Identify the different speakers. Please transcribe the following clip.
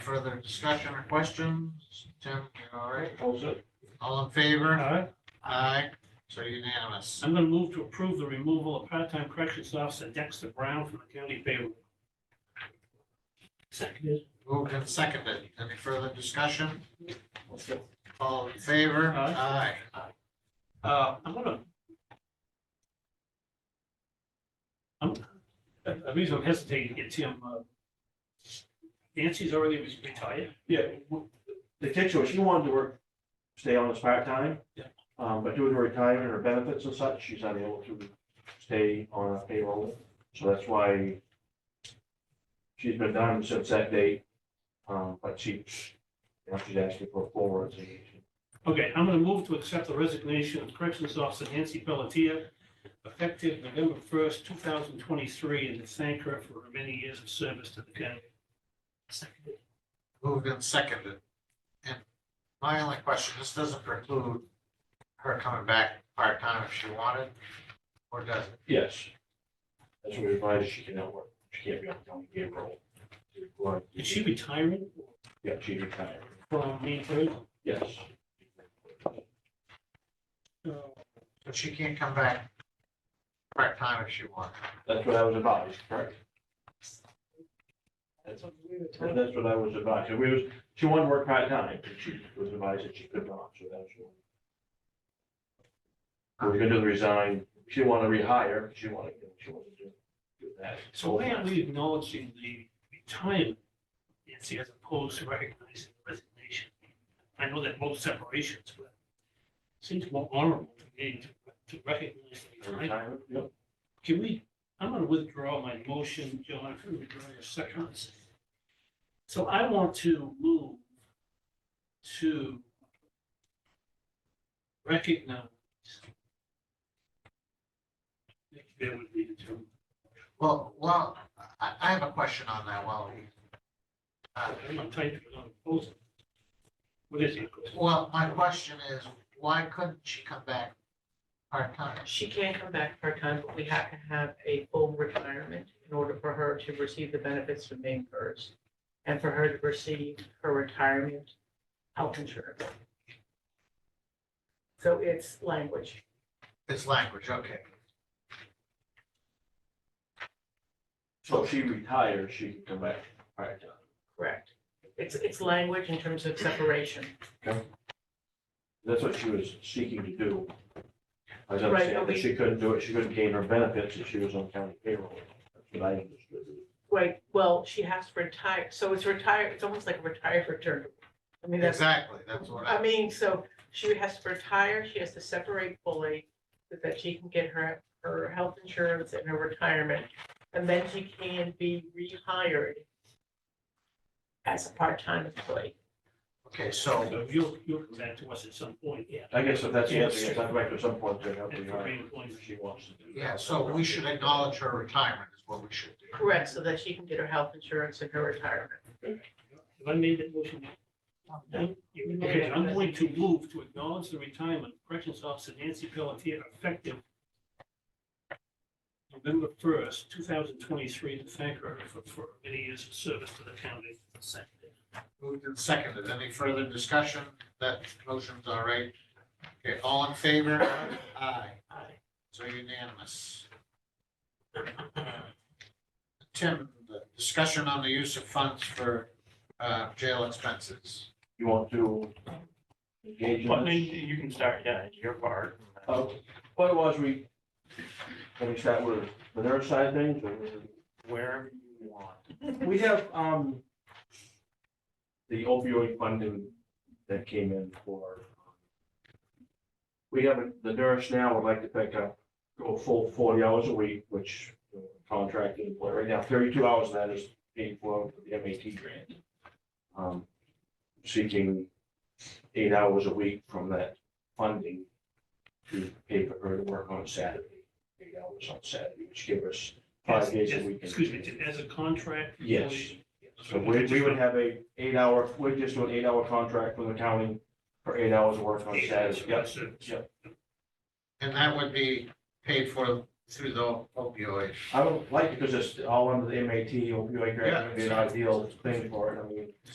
Speaker 1: Further discussion or questions? Tim, you all right?
Speaker 2: Oppose it?
Speaker 1: All in
Speaker 2: All
Speaker 1: favor?
Speaker 2: right,
Speaker 1: Aye. So unanimous.
Speaker 2: I'm gonna move to approve the removal of part-time corrections officer Dexter Brown from the county payroll. Seconded.
Speaker 1: Moved and seconded. Any further discussion? All in favor? Aye.
Speaker 2: Uh, I'm gonna. I'm, the reason I'm hesitating to get Tim, uh, Nancy's already retired.
Speaker 3: Yeah, w- the kick show, she wanted to work, stay on as part-time.
Speaker 2: Yeah.
Speaker 3: Um, but due to her retirement and her benefits and such, she's unable to stay on a payroll, so that's why she's been done since that date, um, but she, you know, she's asking for a full resignation.
Speaker 2: Okay, I'm gonna move to accept the resignation of corrections officer Nancy Pelletier, effective November first, two thousand twenty-three, and to thank her for her many years of service to the county. Seconded.
Speaker 1: Moved and seconded. And my only question, this doesn't preclude her coming back part-time if she wanted, or does it?
Speaker 3: Yes. That's what we advise, she cannot work, she can't be on the county payroll. Well,
Speaker 2: Is she retiring
Speaker 3: Yeah, she's retired,
Speaker 2: from Maine Third?
Speaker 3: yes.
Speaker 2: Uh,
Speaker 1: But she can't come back part-time if she wants.
Speaker 3: That's what I was advised, correct? That's And That's what I was advised. And we was, she wanted to work part-time, and she was advised that she could not, so that's why. We We're gonna do the resign. She wanted to rehire, she wanted, she wanted to do that.
Speaker 2: So why aren't we acknowledging the retirement, Nancy, as opposed to recognizing the resignation? I know that most separations, but it seems more honorable to me to, to recognize the
Speaker 3: The
Speaker 2: retirement.
Speaker 3: Retirement, yep.
Speaker 2: Can we, I'm gonna withdraw my motion, John, if you withdraw your second. So I want to move to recognize. There would be the term.
Speaker 1: Well, well, I, I have a question on that while we. uh,
Speaker 2: I'm not trying to put on a proposal. What is it?
Speaker 1: Well, my question is, why couldn't she come back part-time?
Speaker 4: She can come back part-time, but we have to have a full retirement in order for her to receive the benefits from being hers. And for her to receive her retirement health insurance. So it's language.
Speaker 1: It's language, okay.
Speaker 3: So if she retires, she can come back part-time.
Speaker 4: Correct. It's, it's language in terms of separation.
Speaker 3: That's what she was seeking to do. I
Speaker 4: Right, but
Speaker 3: understand that
Speaker 4: we-
Speaker 3: she couldn't do it, she couldn't gain her benefits if she was on county payroll. That's what I understood.
Speaker 4: Right, well, she has to retire, so it's retired, it's almost like a retired return. I mean, that's
Speaker 1: Exactly, that's what
Speaker 4: I
Speaker 1: I,
Speaker 4: mean, so she has to retire, she has to separate fully, so that she can get her, her health insurance and her retirement. And then she can be rehired as a part-time employee.
Speaker 1: okay, so,
Speaker 2: So You'll, you'll come back to us at some point, yeah.
Speaker 3: I guess if that's the answer,
Speaker 2: Yes.
Speaker 3: yes, I'd like to at some point to help
Speaker 2: At
Speaker 3: you
Speaker 2: the
Speaker 3: out.
Speaker 2: rate of point.
Speaker 3: if She wants to do. that.
Speaker 1: yeah, so we should acknowledge her retirement is what we should do.
Speaker 4: Correct, so that she can get her health insurance and her retirement.
Speaker 2: Have I made that motion? yet?
Speaker 3: No.
Speaker 2: You- okay, I'm going to move to acknowledge the retirement of Corrections Officer Nancy Pelletier effective November first, two thousand twenty-three, to thank her for, for many years of service to the county.
Speaker 1: Moved and seconded. Any further discussion? That motion's all right. Okay, all in favor? Aye.
Speaker 2: Aye.
Speaker 1: So unanimous. Tim, the discussion on the use of funds for uh, jail expenses.
Speaker 3: You want to engage
Speaker 5: Well,
Speaker 3: in
Speaker 5: then
Speaker 3: this?
Speaker 5: you can start, yeah, your part.
Speaker 3: Uh, What it was, we, let me start with the nurse side of things, or-
Speaker 5: Wherever you want.
Speaker 3: we have, um, the opioid funding that came in for, we have, a- the nurse now would like to pick up, go full forty hours a week, which uh, contracted employee, right now, thirty-two hours of that is paid for with the MAT grant. Um, Seeking eight hours a week from that funding to pay for her to work on Saturday, eight hours on Saturday, which give us five days a
Speaker 2: As-
Speaker 3: week.
Speaker 2: Excuse me, as a contract.
Speaker 3: Yes.
Speaker 2: employee.
Speaker 3: So we, we would have a eight hour, we'd just do an eight hour contract with the county for eight hours of work on
Speaker 2: Eight hours
Speaker 3: Saturday.
Speaker 2: of
Speaker 3: Yep,
Speaker 2: service.
Speaker 3: yep.
Speaker 1: And that would be paid for through the opioid.
Speaker 3: I would like, because it's all under the MAT opioid grant, it'd be an ideal thing for it, I mean.